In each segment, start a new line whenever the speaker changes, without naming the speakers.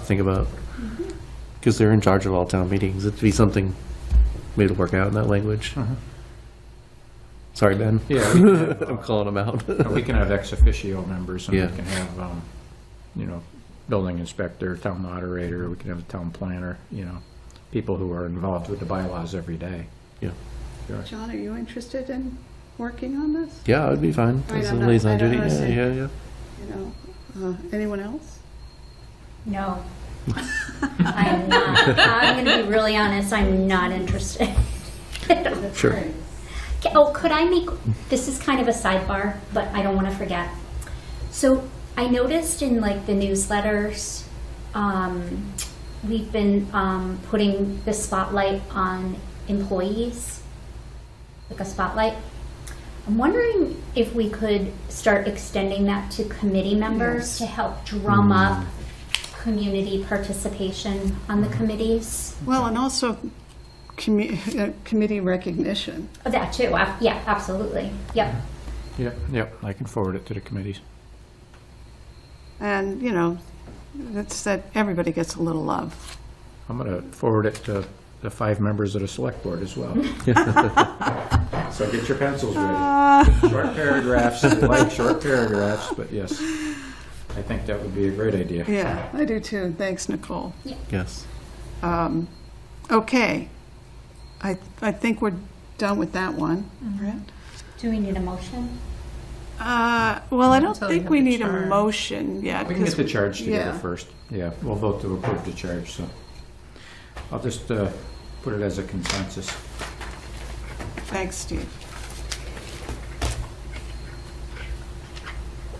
think about. Because they're in charge of all town meetings. It'd be something maybe to work out in that language. Sorry, Ben.
Yeah, we can
I'm
have,
calling them out.
uh, we can have ex officio members, and
Yeah.
we can have, um, you know, building inspector, town moderator, we can have a town planner, you know, people who are involved with the bylaws every day.
John, are you interested in working on this?
Yeah, it'd be fine.
Right,
As a
I'm not- I
liaison
don't
duty. Yeah,
understand.
yeah, yeah.
You know, uh, anyone else?
No. I'm not. I'm going to be really honest, I'm not interested.
Sure.
Oh, could I make, this is kind of a sidebar, but I don't want to forget. So I noticed in like the newsletters, um, we've been um, putting the spotlight on employees, like a spotlight. I'm wondering if we could start extending that to committee
Yes.
members to help drum up community participation on the committees.
Well, and also commu- uh, committee recognition.
Oh, that too. ab- Yeah, absolutely. Yep.
Yep, yep, I can forward it to the committees.
And, you know, that's that everybody gets a little love.
I'm going to forward it to the five members of the select board as well. So get your pencils ready. Short paragraphs, if you like short paragraphs, but yes, I think that would be a great idea.
Yeah, I do too. Thanks, Nicole.
Yes.
Okay. I, I think we're done with that one. Right?
Do we need a motion?
Uh, Well, I don't
Until you
think
have
we
the
need a
charge.
motion yet.
We can get the
because-
charge together
yeah.
first. Yeah, we'll vote to approve the charge, so. I'll just uh, put it as a consensus.
Thanks, Steve.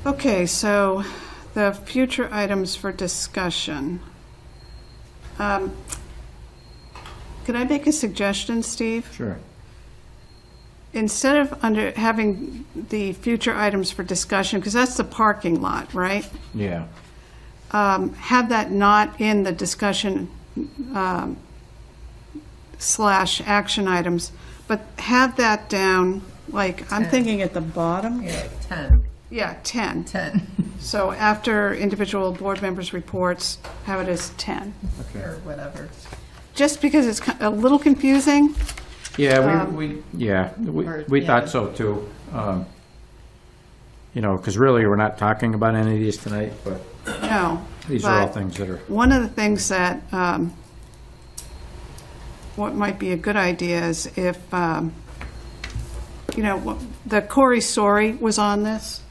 Okay, so the future items for discussion. Um, Could I make a suggestion, Steve?
Sure.
Instead of under, having the future items for discussion, because that's the parking lot, right?
Yeah.
um, have that not in the discussion um, slash action items, but have that down, like, I'm thinking at the bottom,
Yeah, like 10,
yeah, 10.
10,
So after individual board members' reports, have it as 10.
or whatever.
Just because it's ki- a little confusing,
Yeah,
Um,
we, we, yeah, we
or-
we
yeah.
thought so too. Um, You know, because really, we're not talking about any of these tonight, but
no.
these are all
but-
things that are,
One of the things that, um, what might be a good idea is if, um, you know, wha- the Corey Sori was on this,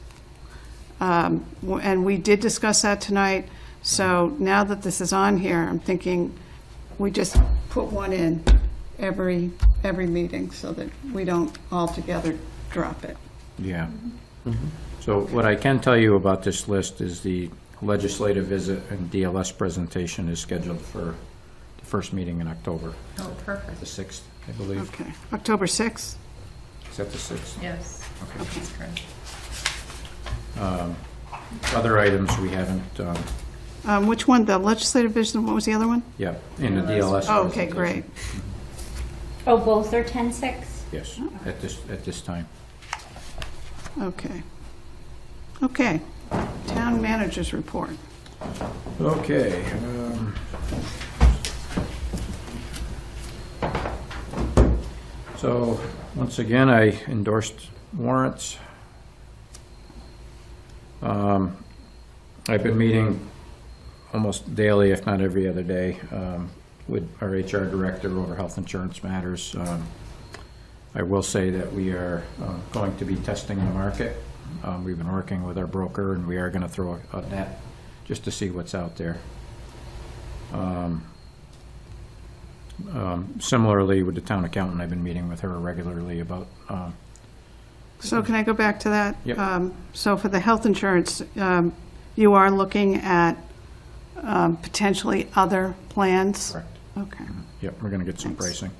um, w- and we did discuss that tonight, so now that this is on here, I'm thinking we just put one in every, every meeting so that we don't altogether drop it.
yeah. So what I can tell you about this list is the legislative visit and DLS presentation is scheduled for the first meeting in October,
Oh, perfect.
the 6th, I believe.
Okay, October 6th?
Is that the 6th?
Yes. That's correct.
Other items we haven't, um,
Um, Which one, the legislative vision, what was the other one?
yeah, in the DLS.
Oh, Okay,
presentation.
great.
Oh, both are 10-6?
Yes,
Mm-hmm.
at this, at this time.
Okay. Okay. Town managers report.
Okay. um, So, once again, I endorsed warrants. Um, I've been meeting almost daily, if not every other day, um, with our HR director over health insurance matters. Um, I will say that we are uh, going to be testing the market. Um, We've been working with our broker, and we are going to throw a net just to see what's out there. Um, um, Similarly, with the town accountant, I've been meeting with her regularly about, um,
So can I go back to that?
Yep.
Um, So for the health insurance, um, you are looking at um, potentially other plans?
correct,
Okay.
yep, we're going to get some
Thanks.
pricing,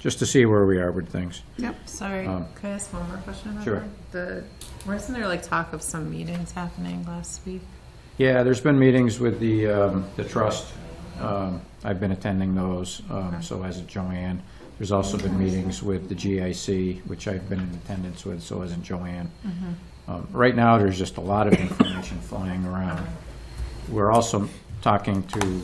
just to see where we are with things.
Yep.
Sorry,
Um,
can I ask one more question about
Sure.
that? The, wasn't there like talk of some meetings happening last week?
Yeah, there's been meetings with the, um, the trust. Um, I've been attending those, um, so has Joanne. There's also been meetings with the GIC, which I've been in attendance with, so has Joanne. Um, Right now, there's just a lot of information flying around. We're also talking to